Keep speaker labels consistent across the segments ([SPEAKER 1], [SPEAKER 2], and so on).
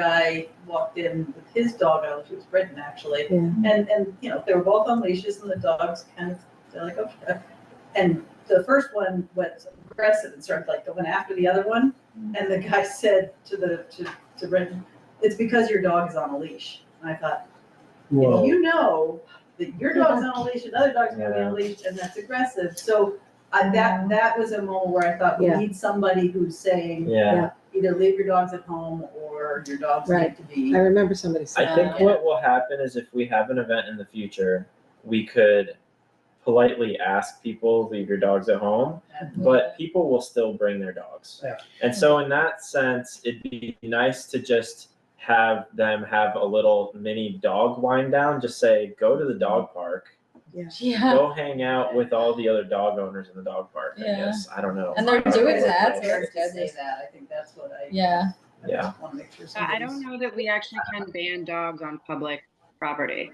[SPEAKER 1] guy walked in with his doggo, she was Britain actually,
[SPEAKER 2] Yeah.
[SPEAKER 1] and, and, you know, they were both on leashes and the dogs kind of, they're like, okay. And the first one went aggressive and started like going after the other one,
[SPEAKER 2] Mm.
[SPEAKER 1] and the guy said to the, to, to Britain, it's because your dog is on a leash. And I thought, if
[SPEAKER 3] Whoa.
[SPEAKER 1] you know that your dog's on a leash, another dog's gonna be on a leash, and that's aggressive, so I, that, that was a moment where I thought, we
[SPEAKER 2] Yeah.
[SPEAKER 1] need somebody who's saying,
[SPEAKER 3] Yeah,
[SPEAKER 1] either leave your dogs at home or your dogs need
[SPEAKER 2] Right.
[SPEAKER 1] to be.
[SPEAKER 2] I remember somebody
[SPEAKER 3] I
[SPEAKER 2] saying.
[SPEAKER 3] think
[SPEAKER 2] that.
[SPEAKER 3] what will happen is if we have an event in the future, we could politely ask people, leave your dogs at home,
[SPEAKER 4] Mm-hmm.
[SPEAKER 3] but people will still bring their dogs.
[SPEAKER 5] Yeah.
[SPEAKER 3] And so in that sense, it'd be nice to just have them have a little mini dog wind down, just say, go to the dog park.
[SPEAKER 4] Yeah,
[SPEAKER 3] Go hang out with all the other dog owners in the dog park, I
[SPEAKER 4] Yeah.
[SPEAKER 3] guess. I don't know.
[SPEAKER 4] And they're doing that, so
[SPEAKER 1] Scared
[SPEAKER 4] it's
[SPEAKER 1] to
[SPEAKER 4] good.
[SPEAKER 1] say that, I think that's what I.
[SPEAKER 4] yeah.
[SPEAKER 1] I
[SPEAKER 3] Yeah.
[SPEAKER 1] just wanna make sure
[SPEAKER 6] I I
[SPEAKER 1] somebody's-
[SPEAKER 6] don't know that we actually can ban dogs on public property.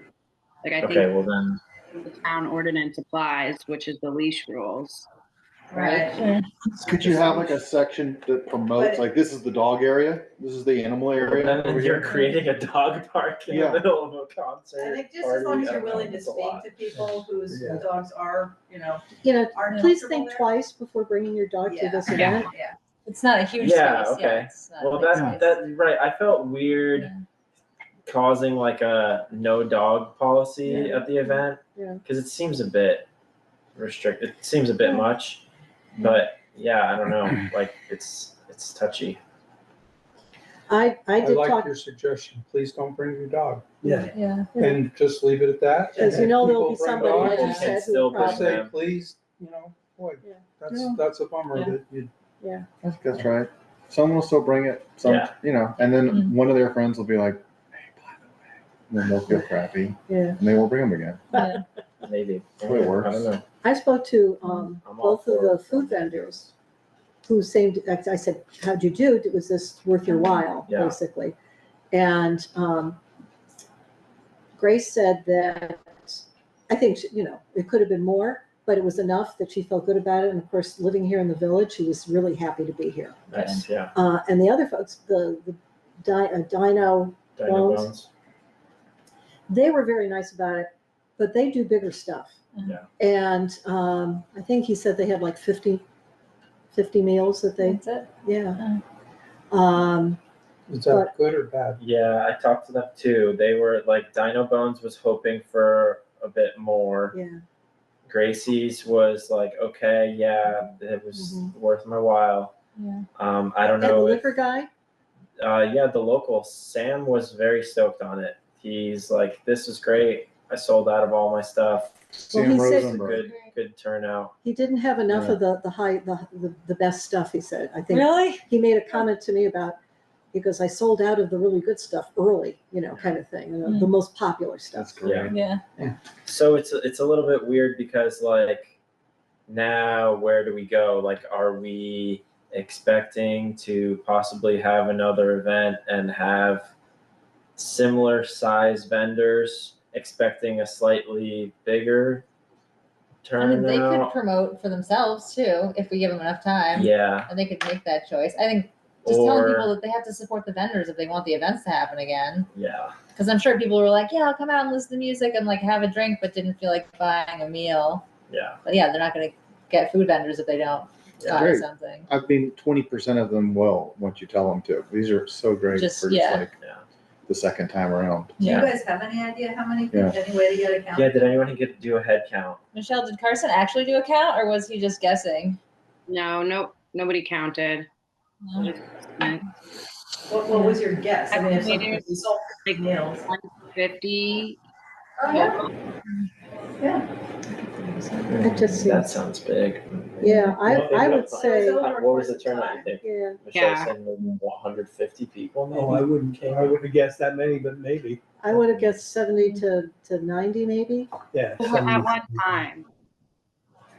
[SPEAKER 6] Like, I
[SPEAKER 3] Okay,
[SPEAKER 6] think
[SPEAKER 3] well then,
[SPEAKER 6] the town ordinance applies, which is the leash rules.
[SPEAKER 1] Right,
[SPEAKER 5] Could you have like a section that promotes, like, this is the dog area, this is the animal area over
[SPEAKER 3] then you're
[SPEAKER 5] here?
[SPEAKER 3] creating a dog park in the
[SPEAKER 5] Yeah.
[SPEAKER 3] middle of a concert.
[SPEAKER 1] I think just as long
[SPEAKER 3] party,
[SPEAKER 1] as
[SPEAKER 3] I
[SPEAKER 1] you're
[SPEAKER 3] don't know,
[SPEAKER 1] willing to
[SPEAKER 3] it's a
[SPEAKER 1] speak
[SPEAKER 3] lot.
[SPEAKER 1] to people whose
[SPEAKER 5] Yeah.
[SPEAKER 1] dogs are, you know,
[SPEAKER 2] You know,
[SPEAKER 1] aren't
[SPEAKER 2] please
[SPEAKER 1] comfortable
[SPEAKER 2] think
[SPEAKER 1] there.
[SPEAKER 2] twice before bringing your dog to
[SPEAKER 1] Yeah.
[SPEAKER 2] this
[SPEAKER 6] Yeah.
[SPEAKER 2] event.
[SPEAKER 1] yeah.
[SPEAKER 4] It's not a huge space,
[SPEAKER 3] Yeah, okay.
[SPEAKER 4] yeah, it's not a
[SPEAKER 3] Well,
[SPEAKER 4] big
[SPEAKER 3] that,
[SPEAKER 4] space.
[SPEAKER 3] that, right, I felt weird
[SPEAKER 4] Yeah.
[SPEAKER 3] causing like a no dog policy at the event.
[SPEAKER 2] Yeah.
[SPEAKER 3] Cause it seems a bit restricted, it seems a bit much, but yeah, I don't know, like, it's, it's touchy.
[SPEAKER 2] I, I
[SPEAKER 7] I
[SPEAKER 2] did
[SPEAKER 7] like
[SPEAKER 2] talk,
[SPEAKER 7] your suggestion, please don't bring your dog,
[SPEAKER 5] Yeah.
[SPEAKER 4] Yeah,
[SPEAKER 7] and just leave it at that. and
[SPEAKER 2] because you
[SPEAKER 7] if
[SPEAKER 2] know there'll be
[SPEAKER 7] people bring
[SPEAKER 2] somebody,
[SPEAKER 7] dogs,
[SPEAKER 2] like
[SPEAKER 3] you
[SPEAKER 2] you
[SPEAKER 3] can
[SPEAKER 2] said,
[SPEAKER 3] still
[SPEAKER 2] who
[SPEAKER 3] bring
[SPEAKER 2] probably.
[SPEAKER 3] them.
[SPEAKER 7] Say,
[SPEAKER 3] Yeah.
[SPEAKER 7] please, you know, boy,
[SPEAKER 2] Yeah.
[SPEAKER 7] that's,
[SPEAKER 2] No.
[SPEAKER 7] that's a bummer
[SPEAKER 3] Yeah.
[SPEAKER 7] that you,
[SPEAKER 5] That's right. Someone will still bring it, some,
[SPEAKER 3] Yeah.
[SPEAKER 5] you know, and then
[SPEAKER 4] Mhm.
[SPEAKER 5] one of their friends will be like, hey, by the way, and then they'll feel crappy,
[SPEAKER 2] Yeah,
[SPEAKER 5] and they won't bring them again.
[SPEAKER 4] yeah.
[SPEAKER 3] Maybe.
[SPEAKER 5] Well, it works.
[SPEAKER 3] I don't know.
[SPEAKER 2] I spoke to, um,
[SPEAKER 3] I'm all
[SPEAKER 2] both of
[SPEAKER 3] for
[SPEAKER 2] the
[SPEAKER 3] it.
[SPEAKER 2] food vendors who seemed, I I said, how'd you do? Was this worth your while,
[SPEAKER 3] Yeah.
[SPEAKER 2] basically? And, um, Grace said that, I think, she- you know, it could have been more, but it was enough that she felt good about it. And of course, living here in the village, she was really happy to be here.
[SPEAKER 3] Nice, yeah.
[SPEAKER 2] Uh, and the other folks, the, the Di- uh, Dino,
[SPEAKER 3] Dino
[SPEAKER 2] Bones.
[SPEAKER 3] bones.
[SPEAKER 2] they were very nice about it, but they do bigger stuff.
[SPEAKER 3] Yeah.
[SPEAKER 2] And, um, I think he said they had like 50, 50 meals that they,
[SPEAKER 4] That's it.
[SPEAKER 2] yeah. Um,
[SPEAKER 7] is that good or bad?
[SPEAKER 3] Yeah, I talked to them too. They were like Dino Bones was hoping for a bit more.
[SPEAKER 2] yeah,
[SPEAKER 3] Gracie's was like, okay, yeah, it was worth my while.
[SPEAKER 4] Yeah.
[SPEAKER 3] Um, I don't
[SPEAKER 2] and the
[SPEAKER 3] know. if-
[SPEAKER 2] liquor guy,
[SPEAKER 3] uh, yeah, the local Sam was very stoked on it. He's like, this is great. I sold out of all my stuff.
[SPEAKER 5] Sam
[SPEAKER 2] he said-
[SPEAKER 3] It's a
[SPEAKER 5] Rosenberg.
[SPEAKER 3] good, good turnout.
[SPEAKER 2] he didn't have enough of the, the high, the, the, the best stuff, he said. I think
[SPEAKER 4] Really?
[SPEAKER 2] he made a comment to me about, because I sold out of the really good stuff early, you know, kind of thing, you know, the most popular
[SPEAKER 5] That's
[SPEAKER 2] stuff.
[SPEAKER 5] great.
[SPEAKER 4] Yeah,
[SPEAKER 3] So it's a- it's a little bit weird because like now where do we go? Like are we expecting to possibly have another event and have similar size vendors expecting a slightly bigger
[SPEAKER 4] I mean, they could
[SPEAKER 3] turnout?
[SPEAKER 4] promote for themselves too, if we give them enough time.
[SPEAKER 3] Yeah,
[SPEAKER 4] And they could make that choice. I think just telling people
[SPEAKER 3] or
[SPEAKER 4] that they have to support the vendors if they want the events to happen again.
[SPEAKER 3] yeah,
[SPEAKER 4] Because I'm sure people were like, yeah, I'll come out and listen to music and like have a drink, but didn't feel like buying a meal.
[SPEAKER 3] yeah,
[SPEAKER 4] But yeah, they're not going to get food vendors if they don't
[SPEAKER 3] yeah.
[SPEAKER 4] buy
[SPEAKER 5] Great.
[SPEAKER 4] something.
[SPEAKER 5] I mean, twenty percent of them will, once you tell them to. These are so great for
[SPEAKER 4] Just-
[SPEAKER 5] just
[SPEAKER 4] yeah.
[SPEAKER 5] like
[SPEAKER 3] Yeah.
[SPEAKER 5] the second time around.
[SPEAKER 1] Do you
[SPEAKER 4] Yeah.
[SPEAKER 1] guys have any idea how many, any way to get a count?
[SPEAKER 3] Yeah, did anyone get to do a head count?
[SPEAKER 4] Michelle, did Carson actually do a count or was he just guessing?
[SPEAKER 6] No, nope, nobody counted.
[SPEAKER 4] No.
[SPEAKER 1] What, what was your guess? I mean, if
[SPEAKER 6] I mean,
[SPEAKER 1] somebody sold big meals,
[SPEAKER 6] Fifty,
[SPEAKER 1] Oh,
[SPEAKER 2] It just
[SPEAKER 3] That
[SPEAKER 2] seems,
[SPEAKER 3] sounds big.
[SPEAKER 2] yeah, I,
[SPEAKER 3] Well, they
[SPEAKER 2] I
[SPEAKER 3] got
[SPEAKER 2] would
[SPEAKER 3] fine.
[SPEAKER 2] say,
[SPEAKER 1] So-
[SPEAKER 3] What was the turnout, you think?
[SPEAKER 2] yeah,
[SPEAKER 3] Michelle
[SPEAKER 6] Yeah.
[SPEAKER 3] said maybe one hundred fifty people, maybe?
[SPEAKER 7] Oh, I wouldn't, I wouldn't have guessed that many, but maybe,
[SPEAKER 2] I would have guessed 70 to, to 90 maybe.
[SPEAKER 7] yeah.
[SPEAKER 6] at one time.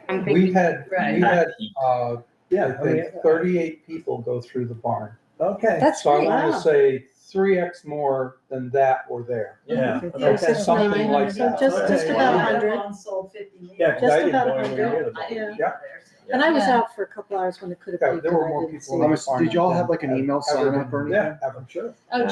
[SPEAKER 6] I'm
[SPEAKER 7] We
[SPEAKER 6] thinking,
[SPEAKER 7] had,
[SPEAKER 1] Right.
[SPEAKER 7] we had, uh,
[SPEAKER 8] Yeah,
[SPEAKER 7] I think thirty-eight people go through the barn.
[SPEAKER 8] okay.
[SPEAKER 4] That's
[SPEAKER 7] So I
[SPEAKER 4] great.
[SPEAKER 7] want
[SPEAKER 2] Wow.
[SPEAKER 7] to say three X more than that were there.
[SPEAKER 3] Yeah.
[SPEAKER 2] Yeah,
[SPEAKER 3] okay.
[SPEAKER 2] six,
[SPEAKER 7] Something
[SPEAKER 2] nine,
[SPEAKER 7] like that.
[SPEAKER 2] Just,
[SPEAKER 3] Okay.
[SPEAKER 2] just
[SPEAKER 1] Yeah,
[SPEAKER 2] about
[SPEAKER 1] I
[SPEAKER 2] 100.
[SPEAKER 1] alone sold 50 meals.
[SPEAKER 7] Yeah,
[SPEAKER 2] 'cause Just I didn't
[SPEAKER 1] I
[SPEAKER 2] about
[SPEAKER 7] go anywhere near the
[SPEAKER 1] didn't
[SPEAKER 2] barn.
[SPEAKER 1] go
[SPEAKER 7] Yeah.
[SPEAKER 1] there, so-
[SPEAKER 2] And I was
[SPEAKER 4] Yeah.
[SPEAKER 2] out for a couple hours when it could have
[SPEAKER 7] Yeah,
[SPEAKER 2] been.
[SPEAKER 7] there were more people
[SPEAKER 5] Thomas,
[SPEAKER 7] Farm
[SPEAKER 5] did y'all have like an
[SPEAKER 7] had
[SPEAKER 5] email sign
[SPEAKER 7] ever
[SPEAKER 5] up or
[SPEAKER 7] been-
[SPEAKER 5] anything?
[SPEAKER 7] Yeah, I'm sure.
[SPEAKER 4] Oh,